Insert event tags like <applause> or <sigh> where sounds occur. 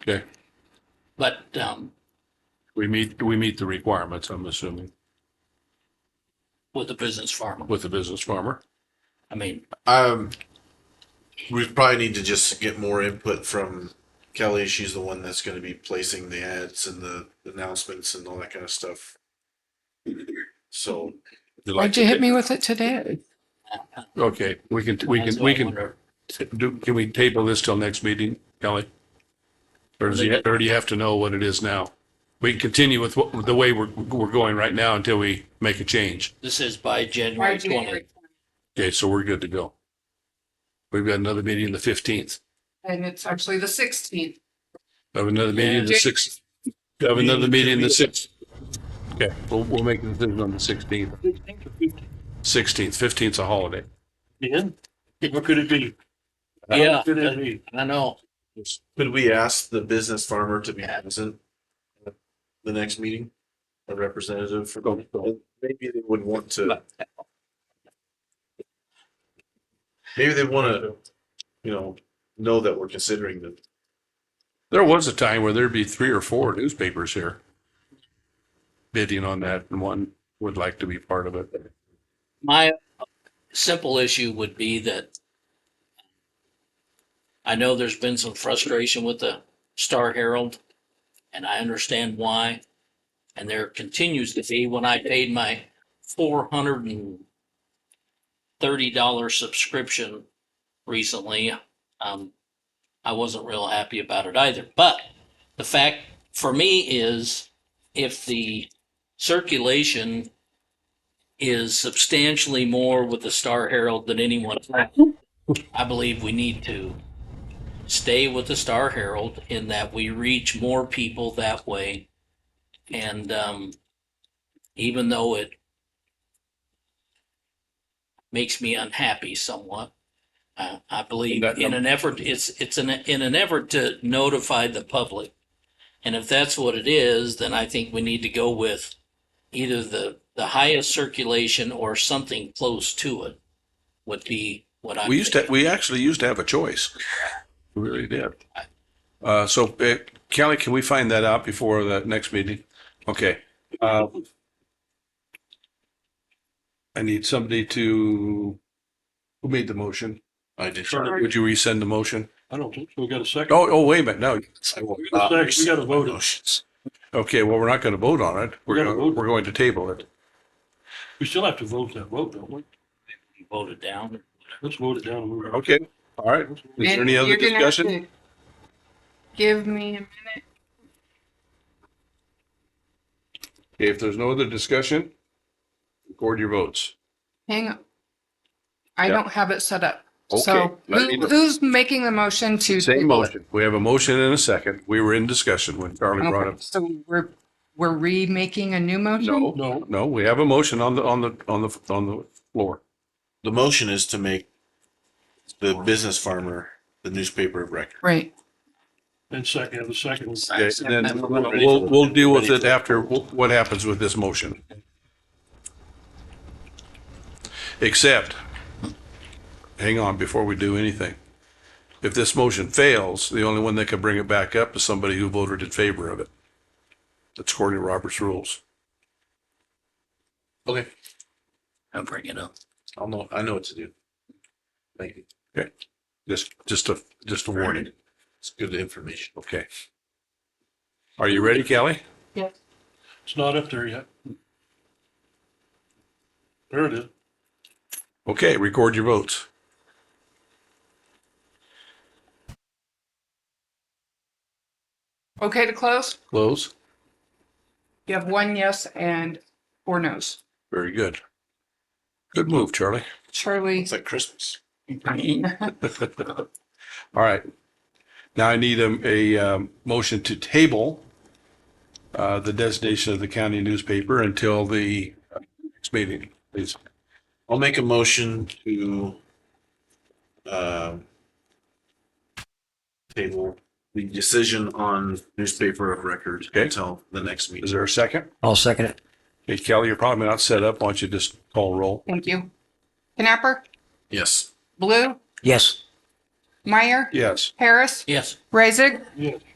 Okay, But um, we meet, we meet the requirements, I'm assuming, with a business farmer, with the business farmer. I mean, Um, we probably need to just get more input from Kelly. She's the one that's going to be placing the ads and the announcements and all that kind of stuff. So You like Why'd you to hit ta- me with it today? Okay, we can, we that's can, why I we can, wonder. do, can we table this till next meeting, Kelly? Or does he, or do you have to know what it is now? We can continue with what, the way we're, we're going right now until we make a change. This is by January Right, twentieth. January 20th. Okay, so we're good to go. We've got another meeting the fifteenth. And it's actually the sixteenth. Have another meeting the Yeah. sixth. Have another meeting the sixth. Okay, we'll, we'll make a decision on the sixteenth. Sixteenth, fifteenth is a holiday. Ian, what could it be? Yeah, What could it be? I know. could we ask the business farmer to be Yeah. present at the next meeting? A representative for Go, go. maybe they would want to. Maybe they want to, you know, know that we're considering the There was a time where there'd be three or four newspapers here bidding on that and one would like to be part of it. My uh, simple issue would be that I know there's been some frustration with the Star Herald, and I understand why. And there continues to be when I paid my four hundred and thirty dollar subscription recently. Um, I wasn't real happy about it either. But the fact for me is if the circulation is substantially more with the Star Herald than anyone. else. I believe we need to stay with the Star Herald in that we reach more people that way. And um, even though it makes me unhappy somewhat, uh, I And believe that in num- an effort it's it's an in an effort to notify the public. And if that's what it is, then I think we need to go with either the, the highest circulation or something close to it would be what I'm. We used to, thinking. we actually used to have a choice. We really did. Uh, so uh, Kelly, can we find that out before the next meeting? Okay. Uh, I need somebody to, who made the motion? I did. Would you resend the motion? I don't think so. We got a second. Oh, oh, wait a minute, no. We got a second. We got a vote. on it. Uh, Okay, well, we're not going to vote on it. We're We're gonna going, vote. we're going to table it. We still have to vote that vote, don't we? Voted down. Let's vote it down. and move on. Okay, all right. Is there any other discussion? Give me a minute. Okay, If there's no other discussion, record your votes. Hang on. I Yeah. don't have it set up. Okay, So let me who, know. who's making the motion to? Same table it? motion. We have a motion and a second. We were in discussion when Charlie brought Okay, up. so we're, we're remaking a new motion? No, No. no, we have a motion on the, on the, on the, on the floor. The motion is to make the business farmer the newspaper of record. Right. And second, have a second. Okay, and then we'll, we'll deal with it after wh- what happens with this motion. Except, hang on, before we do anything. If this motion fails, the only one that can bring it back up is somebody who voted in favor of it. That's according to Robert's rules. Okay. I'll bring it up. I'll know, I know what to do. Thank you. Just, just a, just a warning. It's good information. Okay. Are you ready, Kelly? Yes. It's not up there yet. There it is. Okay, record your votes. Okay to close? Close. You have one yes and four no's. Very good. Good move, Charlie. Charlie, It's like Christmas. All right. Now I need a, a um, motion to table uh, the designation of the county newspaper until the uh, next meeting, please. I'll make a motion to um, table the decision on newspaper of record Okay. until the next Is meeting. there a second? I'll second it. Hey, Kelly, you're probably not set up. Why don't you just call roll? <laughs> thank you. Knapper, Yes. Blue, Yes. Meyer, Yes. Harris, Yes, Raisig, Yes.